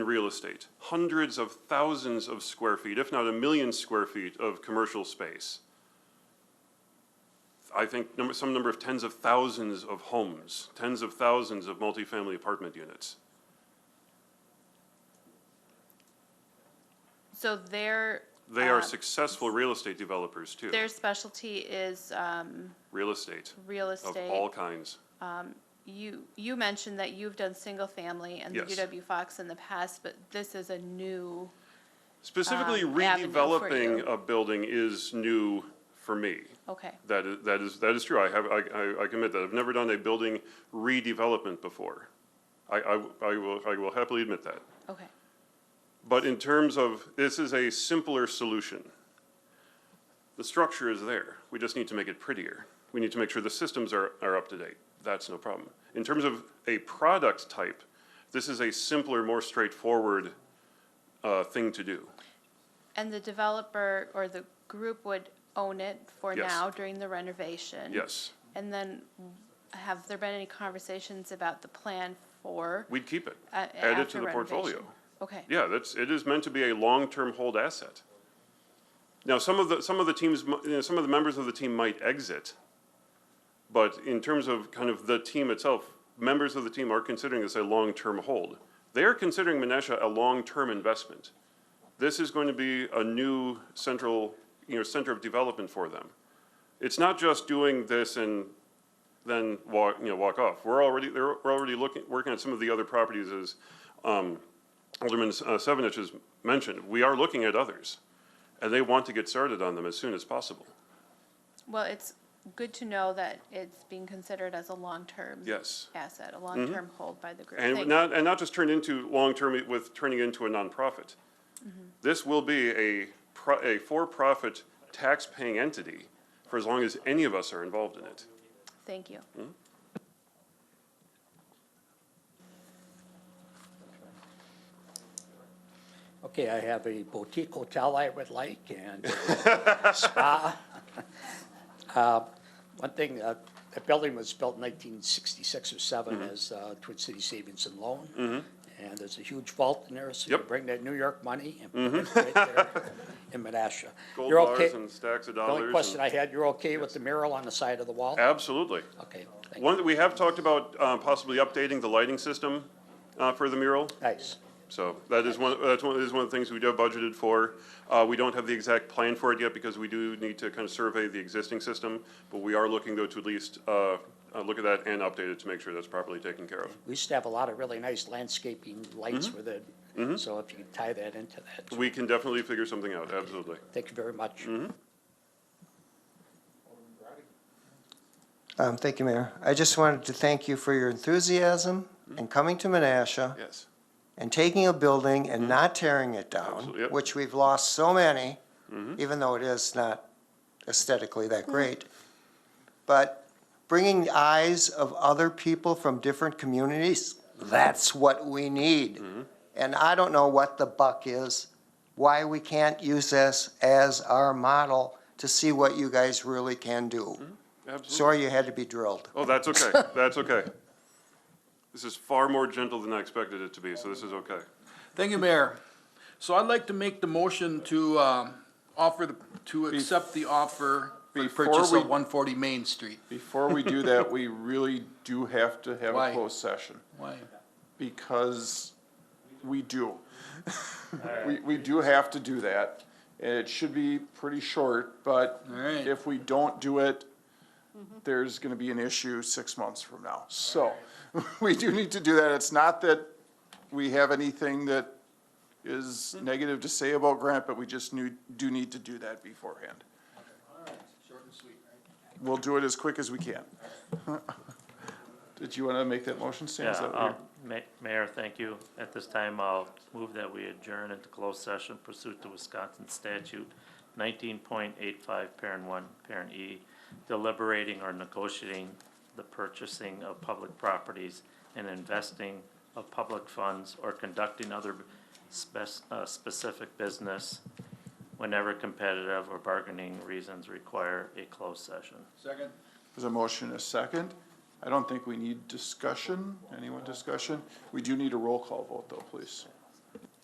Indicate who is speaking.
Speaker 1: real estate, hundreds of thousands of square feet, if not a million square feet of commercial space. I think number, some number of tens of thousands of homes, tens of thousands of multifamily apartment units.
Speaker 2: So their,
Speaker 1: They are
Speaker 2: Uh,
Speaker 1: successful real estate developers too,
Speaker 2: their specialty is um,
Speaker 1: real estate
Speaker 2: real
Speaker 1: of all
Speaker 2: estate.
Speaker 1: kinds.
Speaker 2: You, you mentioned that you've done single-family and the
Speaker 1: Yes.
Speaker 2: UW Fox in the past, but this is a new,
Speaker 1: Specifically,
Speaker 2: um, avenue for you.
Speaker 1: redeveloping a building is new for me.
Speaker 2: okay.
Speaker 1: That is, that is, that is true. I have, I, I- I commit that. I've never done a building redevelopment before. I, I, I will, I will happily admit that.
Speaker 2: Okay,
Speaker 1: But in terms of, this is a simpler solution. The structure is there. We just need to make it prettier. We need to make sure the systems are, are up to date. That's no problem. In terms of a product type, this is a simpler, more straightforward, uh, thing to do.
Speaker 2: and the developer or the group would own it for
Speaker 1: Yes.
Speaker 2: now during the renovation?
Speaker 1: Yes,
Speaker 2: And then have there been any conversations about the plan for?
Speaker 1: we'd keep it.
Speaker 2: uh,
Speaker 1: Add it
Speaker 2: after
Speaker 1: to the portfolio.
Speaker 2: renovation? Okay,
Speaker 1: Yeah, that's, it is meant to be a long-term hold asset. Now, some of the, some of the teams, mi- you know, some of the members of the team might exit, but in terms of kind of the team itself, members of the team are considering this a long-term hold. They are considering Menasha a long-term investment. This is going to be a new central, you know, center of development for them. It's not just doing this and then walk, you know, walk off. We're already, they're, we're already looking, working on some of the other properties as, um, Alderman uh, Sevenich has mentioned. We are looking at others, and they want to get started on them as soon as possible.
Speaker 2: well, it's good to know that it's being considered as a long-term
Speaker 1: Yes. Mm-hmm.
Speaker 2: asset, a long-term hold by the group.
Speaker 1: And
Speaker 2: Thank-
Speaker 1: not, and not just turn into long-term with turning into a nonprofit. This will be a, pro- a for-profit tax-paying entity for as long as any of us are involved in it.
Speaker 2: Thank you.
Speaker 3: Okay, I have a boutique hotel I would like and a spa. Uh, One thing, uh, that building was built in nineteen sixty-six or seven
Speaker 1: Mm-hmm.
Speaker 3: as uh, Twin City Savings and Loan. And there's a huge vault in there, so you
Speaker 1: Yep. Mm-hmm.
Speaker 3: bring that New York money and put it right there in Menasha.
Speaker 1: Gold
Speaker 3: You're okay-
Speaker 1: bars and stacks of
Speaker 3: The
Speaker 1: dollars.
Speaker 3: only question
Speaker 1: and-
Speaker 3: I had, you're okay with the mural on the side of the wall?
Speaker 1: Absolutely.
Speaker 3: Okay, Oh, thank you.
Speaker 1: One, that we have talked about uh, possibly updating the lighting system uh, for the mural.
Speaker 3: Nice.
Speaker 1: So that is one, that's one, is one of the things we do have budgeted for. Uh, we don't have the exact plan for it yet because we do need to kind of survey the existing system. But we are looking though to at least, uh, uh, look at that and update it to make sure that's properly taken care of.
Speaker 3: We used to have a lot of really nice landscaping lights with it, so if you could tie that into that.
Speaker 1: Mm-hmm. We Mm-hmm. can definitely figure something out, absolutely.
Speaker 3: Thank you very much.
Speaker 4: Um, Thank you, Mayor. I just wanted to thank you for your enthusiasm and coming to Menasha
Speaker 1: Yes.
Speaker 4: and taking a building and not tearing it
Speaker 1: Mm-hmm. Absolutely,
Speaker 4: down,
Speaker 1: yep. Mm-hmm.
Speaker 4: which we've lost so many, even though it is not aesthetically that
Speaker 1: Mm.
Speaker 4: great. But bringing eyes of other people from different communities, that's what we need.
Speaker 1: Mm-hmm.
Speaker 4: And I don't know what the buck is, why we can't use this as our model to see what you guys really can do.
Speaker 1: Mm-hmm, Absolutely.
Speaker 4: Sorry you had to be drilled.
Speaker 1: Oh, that's okay, that's okay. This is far more gentle than I expected it to be, so this is okay.
Speaker 5: Thank you, Mayor. So I'd like to make the motion to um, offer, the- to accept the offer for the
Speaker 6: Before
Speaker 5: purchase
Speaker 6: we-
Speaker 5: of 140 Main Street.
Speaker 6: Before we do that, we really do have to have
Speaker 5: Why?
Speaker 6: a closed session,
Speaker 5: Why?
Speaker 6: because we do. We, we do have to do that, and it should be pretty short, but
Speaker 5: Alright.
Speaker 6: if we don't do it, there's gonna be an issue six months from now. So, we do need to do that. It's not that we have anything that is negative to say about Grant, but we just knew, do need to do that beforehand. We'll do it as quick as we can. Did you wanna make that motion, Stan? Is
Speaker 7: Yeah,
Speaker 6: that what you're-
Speaker 7: um, Ma- Mayor, thank you. At this time, I'll move that we adjourn into closed session pursuant to Wisconsin statute nineteen point eight five, parent one, parent E, deliberating or negotiating the purchasing of public properties and investing of public funds or conducting other spec- uh, specific business whenever competitive or bargaining reasons require a closed session.
Speaker 5: Second.
Speaker 6: There's a motion, and a second. I don't think we need discussion, anyone discussion? We do need a roll call vote though, please.